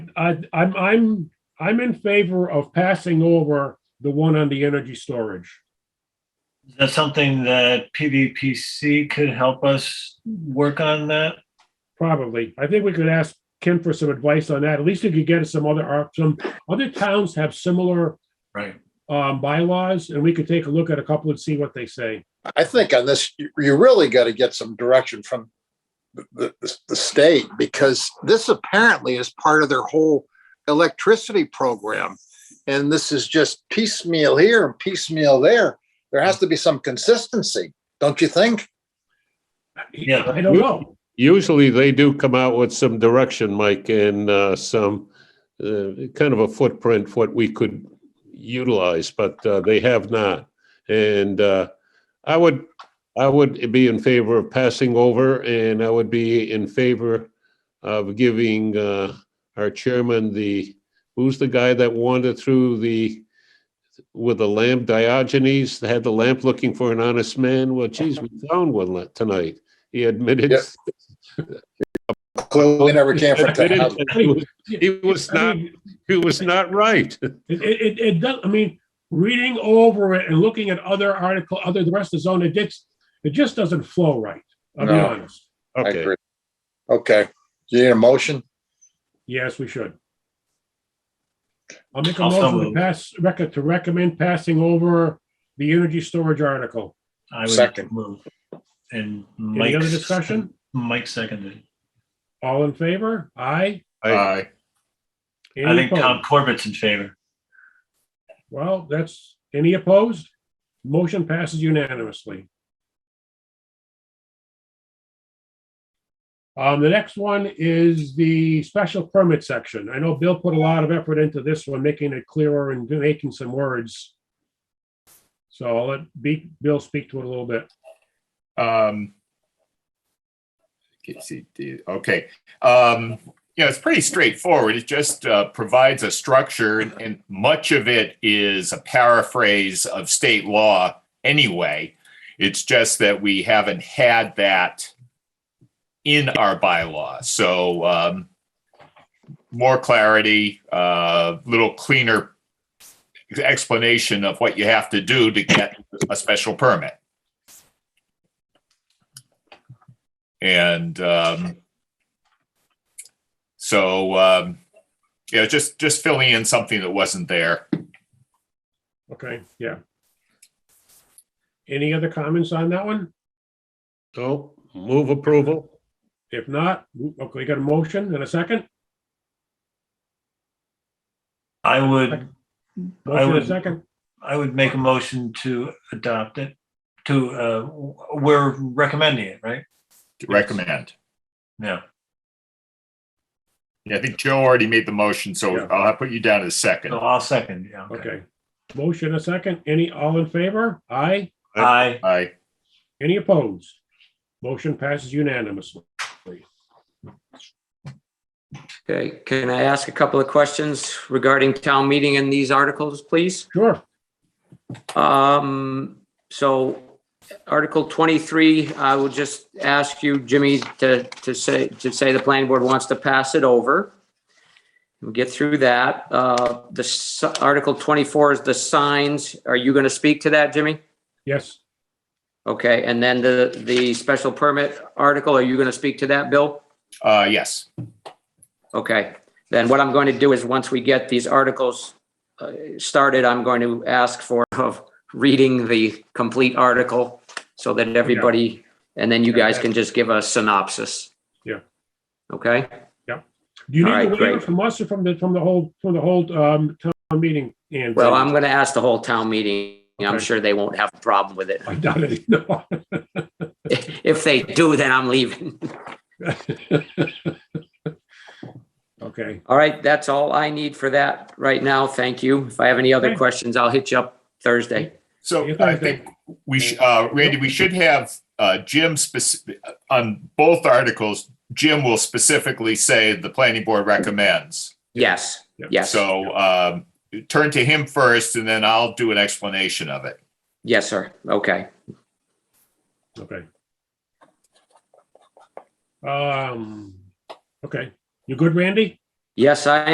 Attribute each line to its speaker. Speaker 1: I, I'm, I'm, I'm in favor of passing over the one on the energy storage.
Speaker 2: Is that something that PVPC could help us work on that?
Speaker 1: Probably. I think we could ask Ken for some advice on that. At least if you get us some other, or some other towns have similar
Speaker 2: Right.
Speaker 1: um, bylaws and we could take a look at a couple and see what they say.
Speaker 3: I think on this, you- you really got to get some direction from the- the, the state because this apparently is part of their whole electricity program. And this is just piecemeal here and piecemeal there. There has to be some consistency, don't you think?
Speaker 2: Yeah,
Speaker 1: I don't know.
Speaker 4: Usually they do come out with some direction, Mike, and uh, some uh, kind of a footprint, for what we could utilize, but uh, they have not. And uh, I would, I would be in favor of passing over and I would be in favor of giving uh, our chairman the, who's the guy that wandered through the, with the lamp, Diogenes, had the lamp looking for an honest man? Well, geez, we found one la- tonight. He admitted
Speaker 3: Yep. Clearly never came from.
Speaker 4: I didn't-
Speaker 3: town.
Speaker 4: He was- he was
Speaker 1: I
Speaker 4: not,
Speaker 1: mean,
Speaker 4: he was not right.
Speaker 1: It, it, it- it does, I mean, reading over it and looking at other article, other, the rest of the zone, it just, it just doesn't flow right. I'll be
Speaker 3: No.
Speaker 1: honest.
Speaker 3: I
Speaker 4: Okay,
Speaker 3: agree. Okay, do you need a motion?
Speaker 1: Yes, we should. I'll make a
Speaker 2: I'll so
Speaker 1: motion to
Speaker 2: move.
Speaker 1: pass, record, to recommend passing over the energy storage article.
Speaker 2: I
Speaker 3: Second.
Speaker 2: would move. And Mike.
Speaker 1: Any other discussion?
Speaker 2: Mike seconded.
Speaker 1: All in favor? Aye.
Speaker 4: I,
Speaker 2: I
Speaker 1: Any
Speaker 2: think Tom
Speaker 1: opposed?
Speaker 2: Corbett's in favor.
Speaker 1: Well, that's, any opposed? Motion passes unanimously. Um, the next one is the special permit section. I know Bill put a lot of effort into this one, making it clearer and making some words. So I'll let B, Bill speak to it a little bit.
Speaker 5: Um, okay, see, the- okay, um, yeah, it's pretty straightforward. It just uh, provides a structure, and, and much of it is a paraphrase of state law anyway. It's just that we haven't had that in our bylaw. So um, more clarity, a little cleaner explanation of what you have to do to get a special permit. And um, so, um, yeah, just, just filling in something that wasn't there.
Speaker 1: Okay, yeah. Any other comments on that one?
Speaker 4: so move approval.
Speaker 1: If not, okay, we got a motion and a second?
Speaker 2: I would, I
Speaker 1: Motion and a
Speaker 2: would-
Speaker 1: second?
Speaker 2: I would make a motion to adopt it, to, uh, w- we're recommending it, right?
Speaker 5: to Recommend.
Speaker 2: Yeah.
Speaker 5: Yeah, I think Joe already made the motion, so
Speaker 1: Yeah.
Speaker 5: I'll put you down as second.
Speaker 2: So I'll second, yeah.
Speaker 1: Okay. Motion and a second. Any, all in favor? Aye.
Speaker 2: Aye.
Speaker 5: Aye.
Speaker 1: Any opposed? Motion passes unanimously.
Speaker 6: Okay, can I ask a couple of questions regarding town meeting and these articles, please?
Speaker 1: Sure.
Speaker 6: Um, so Article twenty-three, I will just ask you, Jimmy, to, to say, to say the planning board wants to pass it over. We'll get through that. Uh, the s- Article twenty-four is the signs. Are you going to speak to that, Jimmy?
Speaker 1: Yes,
Speaker 6: Okay, and then the, the special permit article, are you going to speak to that, Bill?
Speaker 5: Uh, yes.
Speaker 6: Okay, then what I'm going to do is, once we get these articles uh, started, I'm going to ask for of reading the complete article so that everybody, and then you guys can just give a synopsis.
Speaker 1: Yeah.
Speaker 6: Okay,
Speaker 1: Do you need a
Speaker 6: All right,
Speaker 1: waiver
Speaker 6: great.
Speaker 1: from us or from the, from the whole, from the whole um, town meeting? And
Speaker 6: well, I'm going to ask the whole town meeting. I'm
Speaker 1: Okay.
Speaker 6: sure they won't have a problem with it.
Speaker 1: I doubt it. No.
Speaker 6: If they do, then I'm leaving.
Speaker 1: Okay,
Speaker 6: All right, that's all I need for that right now. Thank you. If I have any other
Speaker 1: Okay.
Speaker 6: questions, I'll hit you up Thursday.
Speaker 5: So
Speaker 1: Yes, I
Speaker 5: I think we, sh- uh, Randy, we should have, uh, Jim spec- on both articles, Jim will specifically say the planning board recommends.
Speaker 6: Yes,
Speaker 1: Yeah.
Speaker 6: yes,
Speaker 5: So, um, turn to him first and then I'll do an explanation of it.
Speaker 6: yes, sir. Okay.
Speaker 1: okay. Um, okay, you good, Randy?
Speaker 6: Yes, I